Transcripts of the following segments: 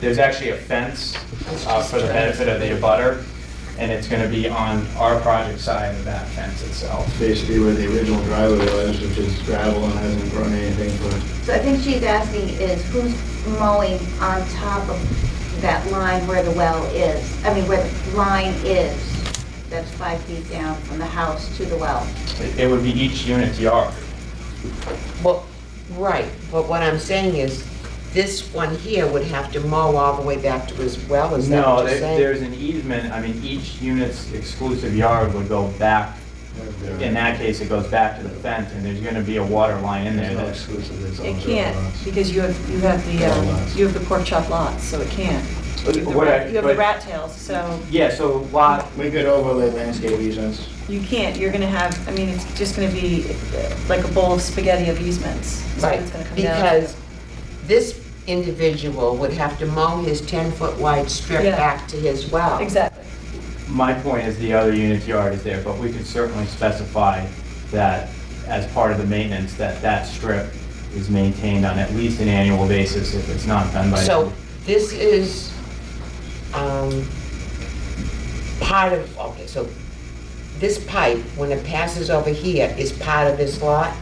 There's actually a fence uh, for the benefit of the abutter, and it's going to be on our project side of that fence itself. basically where the original driveway was, which is gravel and hasn't grown anything, but So I think she's asking is who's mowing on top of that line where the well is? I mean, where the line is, that's five feet down from the house to the well. It- It would be each unit's yard. Well, right, but what I'm saying is, this one here would have to mow all the way back to his well, is that No, what you're there- saying? there's an easement, I mean, each unit's exclusive yard would go back. In that case, it goes back to the fence, and there's going to be a water line in there it's not that's exclusive, it's It also can't, lots. because you have, you have the, All uh, lots. you have the pork chop lots, so it can't. You have the What I- rat- you have the but- rat tails, so Yeah, so lot, We could overlay landscape easements. you can't, you're gonna have, I mean, it's just gonna be uh, like a bowl of spaghetti of easements. That's what Right, it's gonna come down to. because this individual would have to mow his 10-foot wide strip Yeah. back to his well. Exactly. my point is the other unit's yard is there, but we could certainly specify that as part of the maintenance, that that strip is maintained on at least an annual basis if it's not done by. So this is um, part of, okay, so this pipe, when it passes over here, is part of this lot?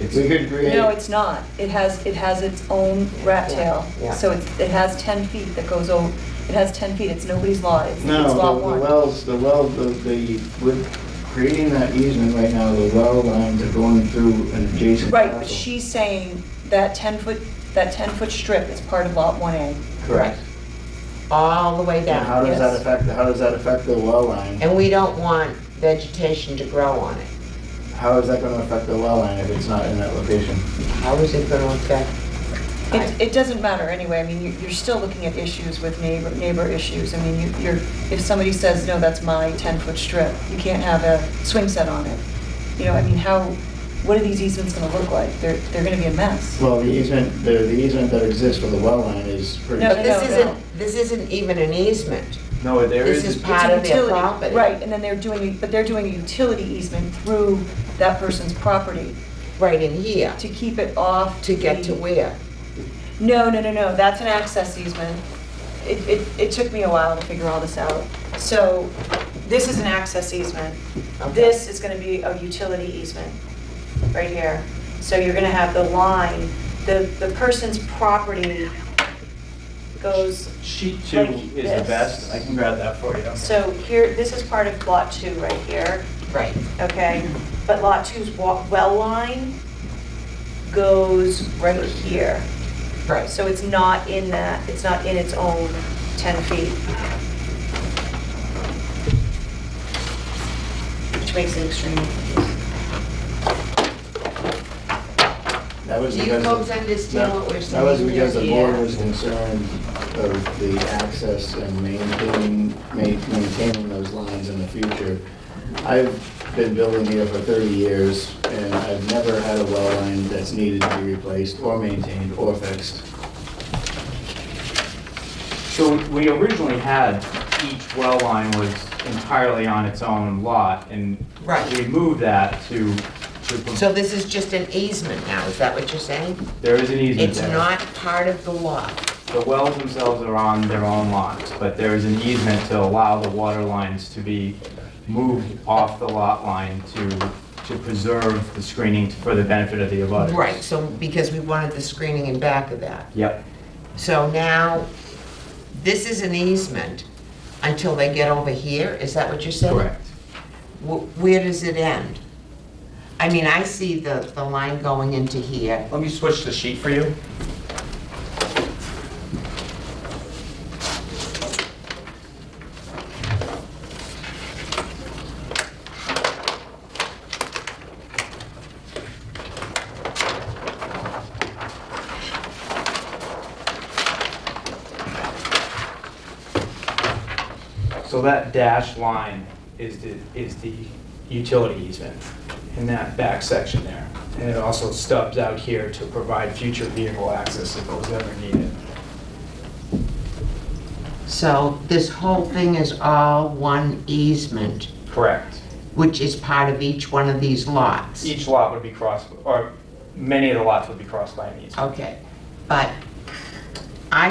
It's- We could create. No, it's not. It has, it has its own rat tail. Yeah, yeah. So it's, it has 10 feet that goes over, it has 10 feet, it's nobody's lot, it's it's No, lot the- one. the wells, the well, the, the, with creating that easement right now, the well lines are going through an adjacent Right, but parcel. she's saying that 10-foot, that 10-foot strip is part of Lot 1A. Correct. All the way And down? Uh-huh. how does that Yes. affect, how does that affect the well line? And we don't want vegetation to grow on it? How is that gonna affect the well line if it's not in that location? How is it gonna affect? It, it doesn't matter anyway, I mean, you- you're still looking at issues with neighbor, neighbor issues. I mean, you- you're, if somebody says, no, that's my 10-foot strip, you can't have a swing set on it. You know, I mean, how, what are these easements gonna look like? They're, they're gonna be a mess. Well, the easement, the, the easement that exists for the well line is pretty. No, But this no, no. isn't, this isn't even an easement. No, there This is, is It's a part of their utility- property. Right, and then they're doing, but they're doing a utility easement through that person's property Right in here, to keep it off. to get to the- where? No, no, no, no, that's an access easement. It, it, it took me a while to figure all this out. So this is an access easement. Okay. This is gonna be a utility easement, right here. So you're gonna have the line, the, the person's property goes, sheet two like is the this. best, I can grab that for you. so here, this is part of lot two right here, Right. okay? But lot two's wa- well line goes right here. Right. So it's not in that, it's not in its own 10 feet. Which makes it extremely confusing. That was Do you because the- folks understand that- what we're That was saying because the here? board was concerned of the access and maintaining, ma- maintaining those lines in the future. I've been building here for 30 years, and I've never had a well line that's needed to be replaced or maintained or fixed. So we originally had each well line was entirely on its own lot, and Right. we moved that to, to, So this is just an easement now, is that what you're saying? there is an easement It's there. not part of the lot. The wells themselves are on their own lots, but there is an easement to allow the water lines to be moved off the lot line to, to preserve the screening for the benefit of the abutters. Right, so, because we wanted the screening in back of that. Yep, So now, this is an easement until they get over here, is that what you're saying? correct. Wh- Where does it end? I mean, I see the, the line going into here. Let me switch the sheet for you. So that dashed line is the, is the utility easement in that back section there. And it also stubs out here to provide future vehicle access if it was ever needed. So this whole thing is all one easement, Correct. which is part of each one of these lots. Each lot would be crossed, or many of the lots would be crossed by an easement. Okay, but